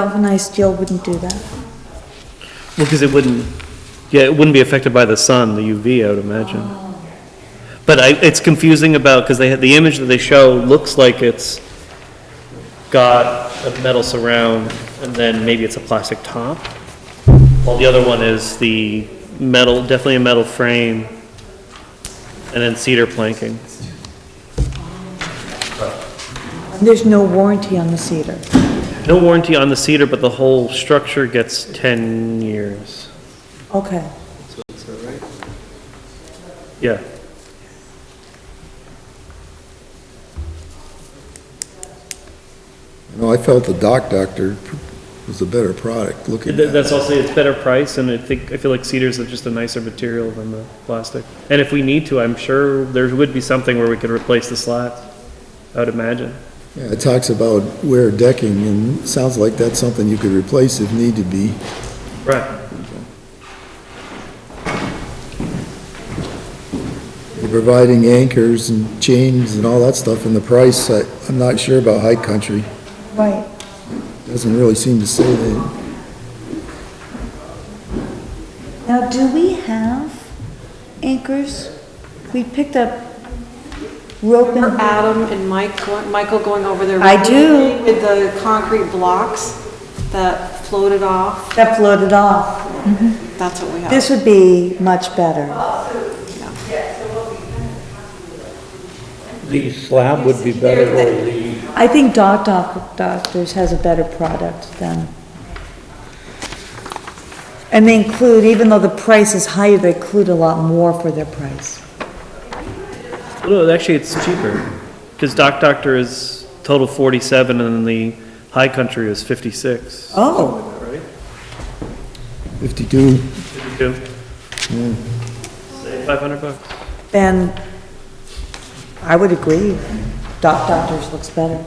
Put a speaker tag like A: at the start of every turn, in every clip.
A: Galvanized steel wouldn't do that.
B: Well, because it wouldn't, yeah, it wouldn't be affected by the sun, the UV, I would imagine. But I, it's confusing about, because they had, the image that they show looks like it's got a metal surround, and then maybe it's a plastic top. While the other one is the metal, definitely a metal frame, and then cedar planking.
A: There's no warranty on the cedar.
B: No warranty on the cedar, but the whole structure gets 10 years.
A: Okay.
B: Yeah.
C: You know, I felt the Doc Doctor was a better product looking
B: Th-
C: at.
B: That's also, it's better price, and I think, I feel like cedars are just a nicer material than the plastic. And if we need to, I'm sure there would be something where we could replace the slats, I would imagine.
C: Yeah, It talks about wear decking and it sounds like that's something you could replace if need to be.
B: Right.
C: Providing anchors and chains and all that stuff and the price, I, I'm not sure about high country.
A: Right.
C: Doesn't really seem to say that.
A: Now, do we have anchors? We picked up rope
D: Remember
A: and...
D: Adam and Mike, go- Michael going over there?
A: I do.
D: With the concrete blocks that floated off?
A: That floated off.
D: That's what we have.
A: This would be much better.
E: The slab would be better or the,
A: I think Doc Doc Doctors has a better product than... And they include, even though the price is higher, they include a lot more for their price.
B: Well, no, actually, it's cheaper, because Doc Doctor is total forty-seven, and then the High Country is fifty-six.
A: Oh,
C: Fifty-two,
B: Fifty-two. Hmm. Say five hundred bucks.
A: then I would agree. Doc Doctors looks better.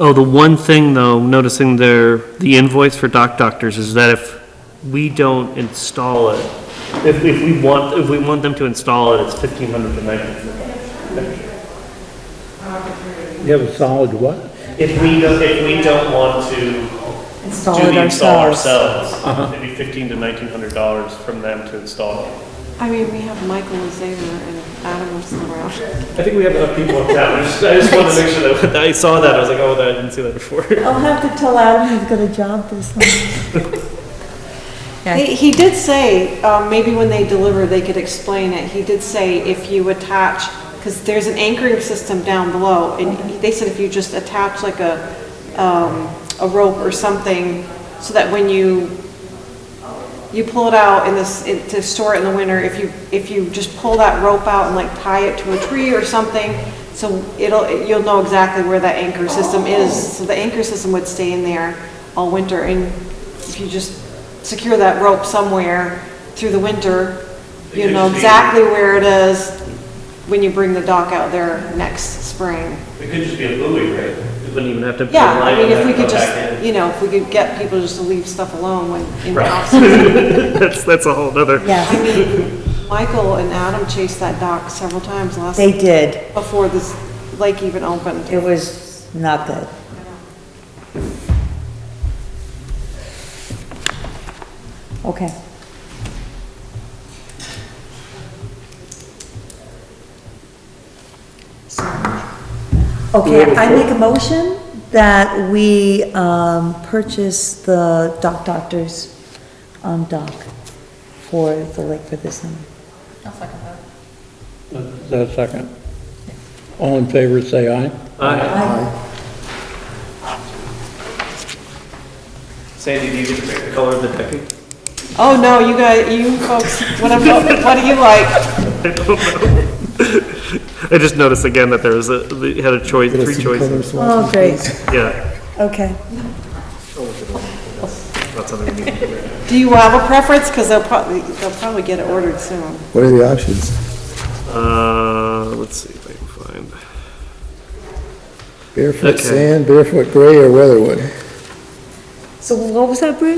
B: Oh, the one thing though, noticing there, the invoice for Doc Doctors is that if we don't install it, if, if we want, if we want them to install it, it's fifteen hundred to nineteen.
E: you have a solid what?
B: If we don't, if we don't want to
A: Install
B: do
A: it
B: the install
A: ourselves.
B: ourselves, it'd be fifteen to nineteen hundred dollars from them to install. it.
D: I mean, we have Michael and Xavier and Adam was somewhere else.
B: I think we have enough people in town, I just, I just wanted to make sure that, I saw that, I was like, oh, that- I didn't see that before.
A: I'll have to tell Adam he's got a job this summer.
D: He he did say, um, maybe when they deliver, they could explain it. He did say if you attach, because there's an anchoring system down below, and he- they said if you just attach like a, um, a rope or something, so that when you, you pull it out in this, it- to store it in the winter, if you, if you just pull that rope out and like tie it to a tree or something, so it'll, you'll know exactly where that anchor system is. So the anchor system would stay in there all winter, and if you just secure that rope somewhere through the winter, you know exactly where it is when you bring the dock out there next spring.
B: It could just be a buoy, right? It wouldn't even have to. be a
D: Yeah, I
B: line
D: mean, if
B: and
D: we
B: go
D: could
B: back in.
D: just, you know, if we could get people just to leave stuff alone when, in the
B: Right.
D: off-season.
B: That's, that's a whole nother.
A: Yeah,
D: Michael and Adam chased that dock several times last,
A: they did.
D: before this lake even opened.
A: It was not good. Okay. Okay, I make a motion that we um, purchase the Doc Doctors um, dock for the lake for this summer.
E: Is that a second? All in favor, say aye.
B: Sandy, do you get to pick the color of the decking?
D: Oh, no, you guys, you folks, what am- what do you like?
B: I just noticed again that there was a, they had a choice,
C: get
B: three
C: us some color
B: choices.
C: swatches.
A: Oh, great,
B: Yeah,
A: okay.
B: that's something we need.
D: Do you have a preference? Because they'll probably, they'll probably get it ordered soon.
C: What are the options?
B: Uh, let's see if I can find.
C: Barefoot
B: Okay.
C: sand, barefoot gray or weatherwood?
A: So what was that, Bruce?